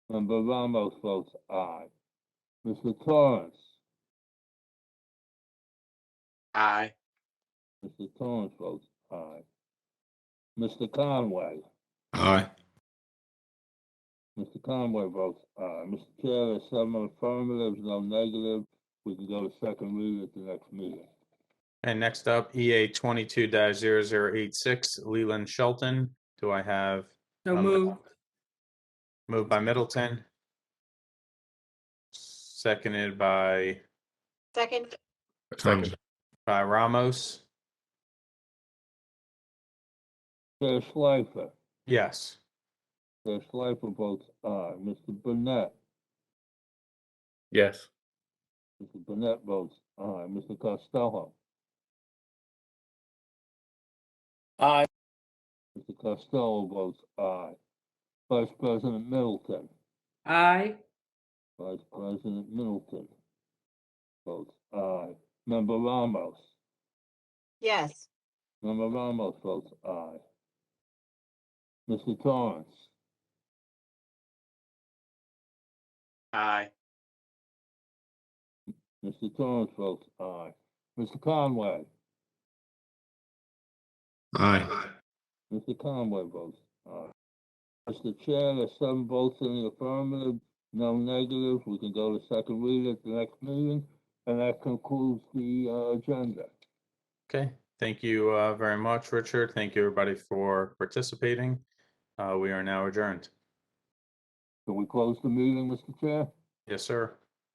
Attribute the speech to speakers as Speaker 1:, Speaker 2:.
Speaker 1: Member Ramos votes aye. Mr. Torrance,
Speaker 2: Aye.
Speaker 1: Mr. Torrance votes aye. Mr. Conway,
Speaker 3: Aye.
Speaker 1: Mr. Conway votes aye. Mr. Chair, there's seven affirmatives, no negative. We can go to second reading at the next meeting.
Speaker 4: And next up, EA twenty-two 86 Leland Shelton. Do I have?
Speaker 5: So
Speaker 4: Um,
Speaker 5: moved.
Speaker 4: Moved by Middleton. Seconded by,
Speaker 6: Second,
Speaker 3: Second.
Speaker 4: by Ramos.
Speaker 1: Chair Schleifer,
Speaker 4: Yes.
Speaker 1: Chair Schleifer votes aye. Mr. uh, Burnett,
Speaker 2: Yes.
Speaker 1: Mr. Burnett votes aye. Mr. Costello,
Speaker 2: Aye.
Speaker 1: Mr. Costello votes aye. Vice President Middleton.
Speaker 5: Aye.
Speaker 1: Vice President Middleton votes aye. Member Ramos,
Speaker 6: yes,
Speaker 1: Member Ramos votes aye. Mr. Torrance,
Speaker 2: Aye.
Speaker 1: Mr. Torrance votes aye. Mr. Conway,
Speaker 3: Aye.
Speaker 1: Mr. Conway votes aye. Mr. Chair, there's seven votes in the affirmative, no negative. We can go to second reading at the next meeting, and that concludes the uh, agenda.
Speaker 4: Okay. Thank you, uh, very much, Richard. Thank you, everybody, for participating. Uh, we are now adjourned.
Speaker 1: Can we close the meeting, Mr. Chair?
Speaker 4: Yes, sir.